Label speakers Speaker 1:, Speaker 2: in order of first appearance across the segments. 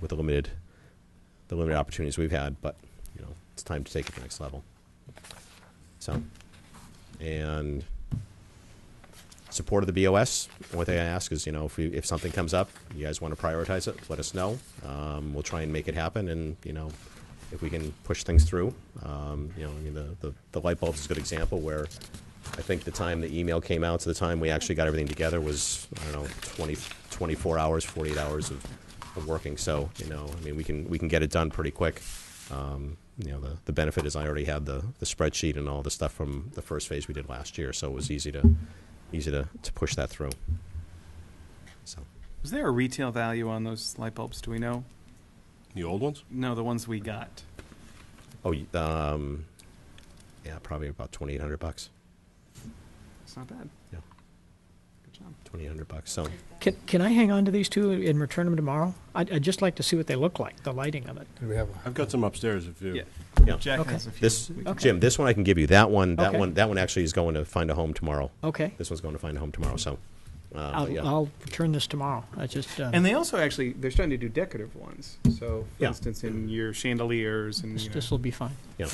Speaker 1: with the limited, the limited opportunities we've had, but, you know, it's time to take it to the next level. So, and support of the BOS. One thing I ask is, you know, if, we, if something comes up, you guys want to prioritize it, let us know. Um, we'll try and make it happen, and you know, if we can push things through, um, you know, I mean, the, the the light bulbs is a good example where I think the time the email came out to the time we actually got everything together was I don't know 20, 24 hours, 48 hours of, of working. So you know, I mean, we can we can get it done pretty quick. Um, you know, the, the benefit is I already had the, the spreadsheet and all the stuff from the first phase we did last year, so it was easy to easy to, to push that through. So
Speaker 2: Was there a retail value on those light bulbs? Do we know?
Speaker 3: The old ones?
Speaker 2: No, the ones we got.
Speaker 1: oh y- um, yeah, probably about twenty eight hundred bucks.
Speaker 2: It's not bad.
Speaker 1: Yeah,
Speaker 2: Good job.
Speaker 1: twenty eight hundred bucks. So
Speaker 4: Can, can I hang on to these two and return them tomorrow? I'd, I'd just like to see what they look like, the lighting of it.
Speaker 5: Do we have,
Speaker 3: I've got some upstairs if you.
Speaker 2: Yeah.
Speaker 1: yeah.
Speaker 2: Jack
Speaker 4: Okay.
Speaker 2: has a few.
Speaker 1: This
Speaker 2: We can-
Speaker 4: Okay.
Speaker 1: Jim, this one I can give you. That one, that
Speaker 4: Okay.
Speaker 1: one, that one actually is going to find a home tomorrow.
Speaker 4: Okay.
Speaker 1: This one's going to find a home tomorrow. So, uh, but
Speaker 4: I'll,
Speaker 1: Oh, yeah.
Speaker 4: I'll return this tomorrow. I just, um,
Speaker 2: And they also actually they're starting to do decorative ones. So, for
Speaker 1: Yeah.
Speaker 2: instance, in your chandeliers and you know,
Speaker 4: this will be fine.
Speaker 1: yeah,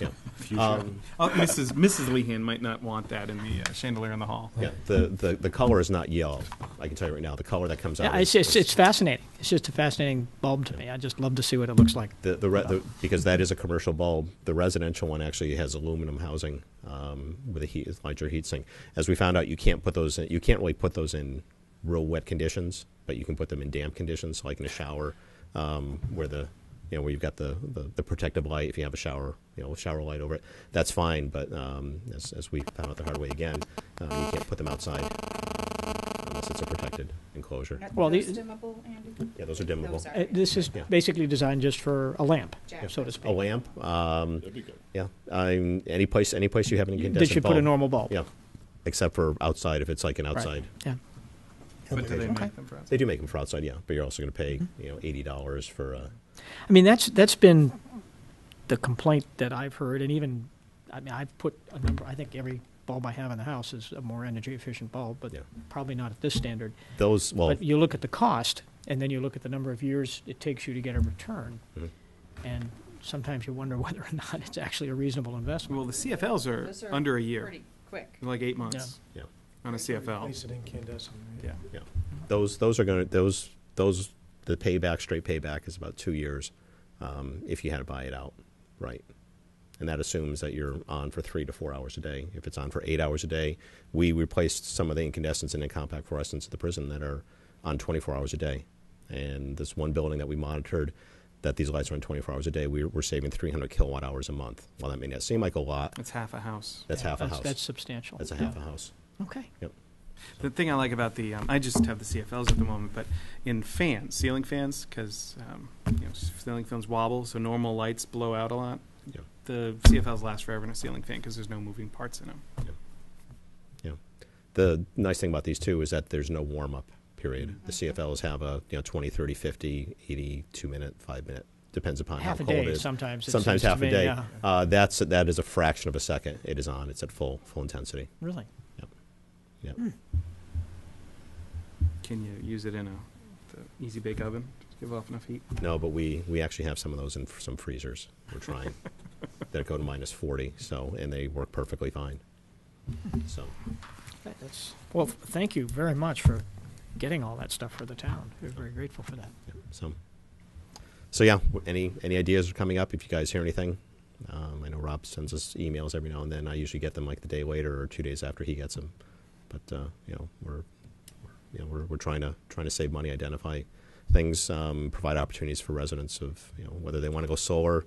Speaker 1: yeah,
Speaker 3: Future.
Speaker 2: Oh, Mrs. Mrs. Lehan might not want that in the uh, chandelier in the hall.
Speaker 1: yeah. The, the the color is not yellow. I can tell you right now. The color that comes out.
Speaker 4: Yeah,
Speaker 1: is-
Speaker 4: it's, it's, it's fascinating. It's just a fascinating bulb to me. I just love to see what it looks like.
Speaker 1: The, the, re- the because that is a commercial bulb. The residential one actually has aluminum housing um, with a heat, larger heat sink. As we found out, you can't put those. In, you can't really put those in real wet conditions, but you can put them in damp conditions, like in a shower, um, where the you know where you've got the, the, the protective light. If you have a shower, you know, shower light over it, that's fine. But um, as, as we found out the hard way again, um, you can't put them outside unless it's a protected enclosure.
Speaker 4: Well,
Speaker 6: Well,
Speaker 4: the-
Speaker 6: those dimmable, Andy?
Speaker 1: Yeah, those are dimmable.
Speaker 6: Those
Speaker 4: Uh,
Speaker 6: are.
Speaker 4: This is
Speaker 1: Yeah.
Speaker 4: basically designed just for a lamp,
Speaker 6: Jack.
Speaker 4: so to speak.
Speaker 1: A lamp. Um,
Speaker 3: That'd be good.
Speaker 1: Yeah, I'm, any place, any place you have an incandescent
Speaker 4: That you put a
Speaker 1: bulb.
Speaker 4: normal bulb.
Speaker 1: Yeah, except for outside, if it's like an
Speaker 4: Right.
Speaker 1: outside.
Speaker 4: Yeah.
Speaker 2: But do they
Speaker 4: Okay.
Speaker 2: make them for us?
Speaker 1: They do make them for outside, yeah, but you're also going to pay,
Speaker 4: Mm-hmm.
Speaker 1: you know, eighty dollars for, uh,
Speaker 4: I mean, that's, that's been the complaint that I've heard, and even, I mean, I've put a number, I think every bulb I have in the house is a more energy efficient bulb, but
Speaker 1: Yeah.
Speaker 4: probably not at this standard.
Speaker 1: those, well,
Speaker 4: But you look at the cost, and then you look at the number of years it takes you to get a return,
Speaker 1: Mhm.
Speaker 4: and sometimes you wonder whether or not it's actually a reasonable investment.
Speaker 2: Well, the CFLs
Speaker 6: Those
Speaker 2: are,
Speaker 6: are
Speaker 2: under a year,
Speaker 6: Pretty quick.
Speaker 2: like eight months
Speaker 1: yeah,
Speaker 2: on a CFL.
Speaker 5: Place it incandescent, right?
Speaker 1: yeah.
Speaker 2: Yeah.
Speaker 1: Those, those are going to, those, those, the payback, straight payback is about two years, um, if you had to buy it out, right? And that assumes that you're on for three to four hours a day. If it's on for eight hours a day, we replaced some of the incandescents and compact fluorescents at the prison that are on 24 hours a day. And this one building that we monitored, that these lights are on 24 hours a day, we we're saving 300 kilowatt hours a month. While that may not seem like a lot,
Speaker 2: That's half a house.
Speaker 1: that's half a
Speaker 4: That's-
Speaker 1: house.
Speaker 4: That's substantial.
Speaker 1: That's a half a house.
Speaker 4: Okay.
Speaker 1: Yep.
Speaker 2: The thing I like about the, um, I just have the CFLs at the moment, but in fans, ceiling fans, because um, you know, ceiling fans wobble, so normal lights blow out a lot.
Speaker 1: Yeah.
Speaker 2: The CFLs last forever in a ceiling fan because there's no moving parts in them.
Speaker 1: Yeah. The nice thing about these two is that there's no warm up period.
Speaker 4: Mm-hmm.
Speaker 1: The CFLs have a you know 20, 30, 50, 82 minute, 5 minute depends upon
Speaker 4: Half
Speaker 1: how
Speaker 4: a
Speaker 1: cold it
Speaker 4: day
Speaker 1: is.
Speaker 4: sometimes, it
Speaker 1: Sometimes
Speaker 4: seems to
Speaker 1: half a
Speaker 4: me,
Speaker 1: day.
Speaker 4: yeah.
Speaker 1: Uh, that's that is a fraction of a second. It is on. It's at full full intensity.
Speaker 4: Really?
Speaker 1: Yep. Yep.
Speaker 2: Can you use it in a the easy bake oven? Just give off enough heat.
Speaker 1: No, but we we actually have some of those in f- some freezers. We're trying that go to minus 40. So and they work perfectly fine. So
Speaker 4: That- That's, well, thank you very much for getting all that stuff for the town. We're very grateful for that.
Speaker 1: Yeah, So, so yeah. w- Any any ideas are coming up? If you guys hear anything, um, I know Rob sends us emails every now and then. I usually get them like the day later or two days after he gets them. But uh, you know, we're, we're you know we're, we're trying to trying to save money, identify things, um, provide opportunities for residents of you know whether they want to go solar.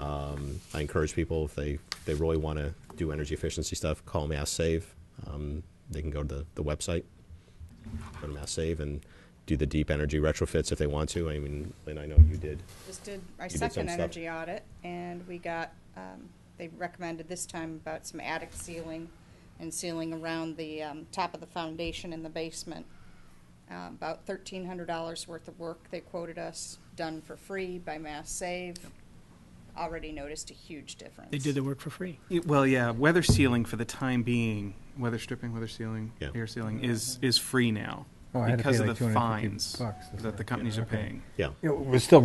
Speaker 1: Um, I encourage people if they they really want to do energy efficiency stuff, call Mass Save. Um, they can go to the, the website go to Mass Save and do the deep energy retrofits if they want to. I mean, and I know you did.
Speaker 6: Just did our
Speaker 1: You did some
Speaker 6: second
Speaker 1: stuff.
Speaker 6: energy audit, and we got, um, they recommended this time about some attic ceiling and ceiling around the, um, top of the foundation in the basement. Uh, about thirteen hundred dollars worth of work they quoted us, done for free by Mass Save. Already noticed a huge difference.
Speaker 4: They did the work for free.
Speaker 2: Y- Well, yeah, weather sealing for the time being, weather stripping, weather sealing,
Speaker 1: Yeah.
Speaker 2: air sealing is is free now.
Speaker 5: Mm-hmm. Oh, I had to
Speaker 2: because
Speaker 5: pay
Speaker 2: of
Speaker 5: like
Speaker 2: the
Speaker 5: 250
Speaker 2: fines
Speaker 5: bucks.
Speaker 2: that the companies are
Speaker 5: Okay.
Speaker 2: paying.
Speaker 1: Yeah.
Speaker 5: You know, We're still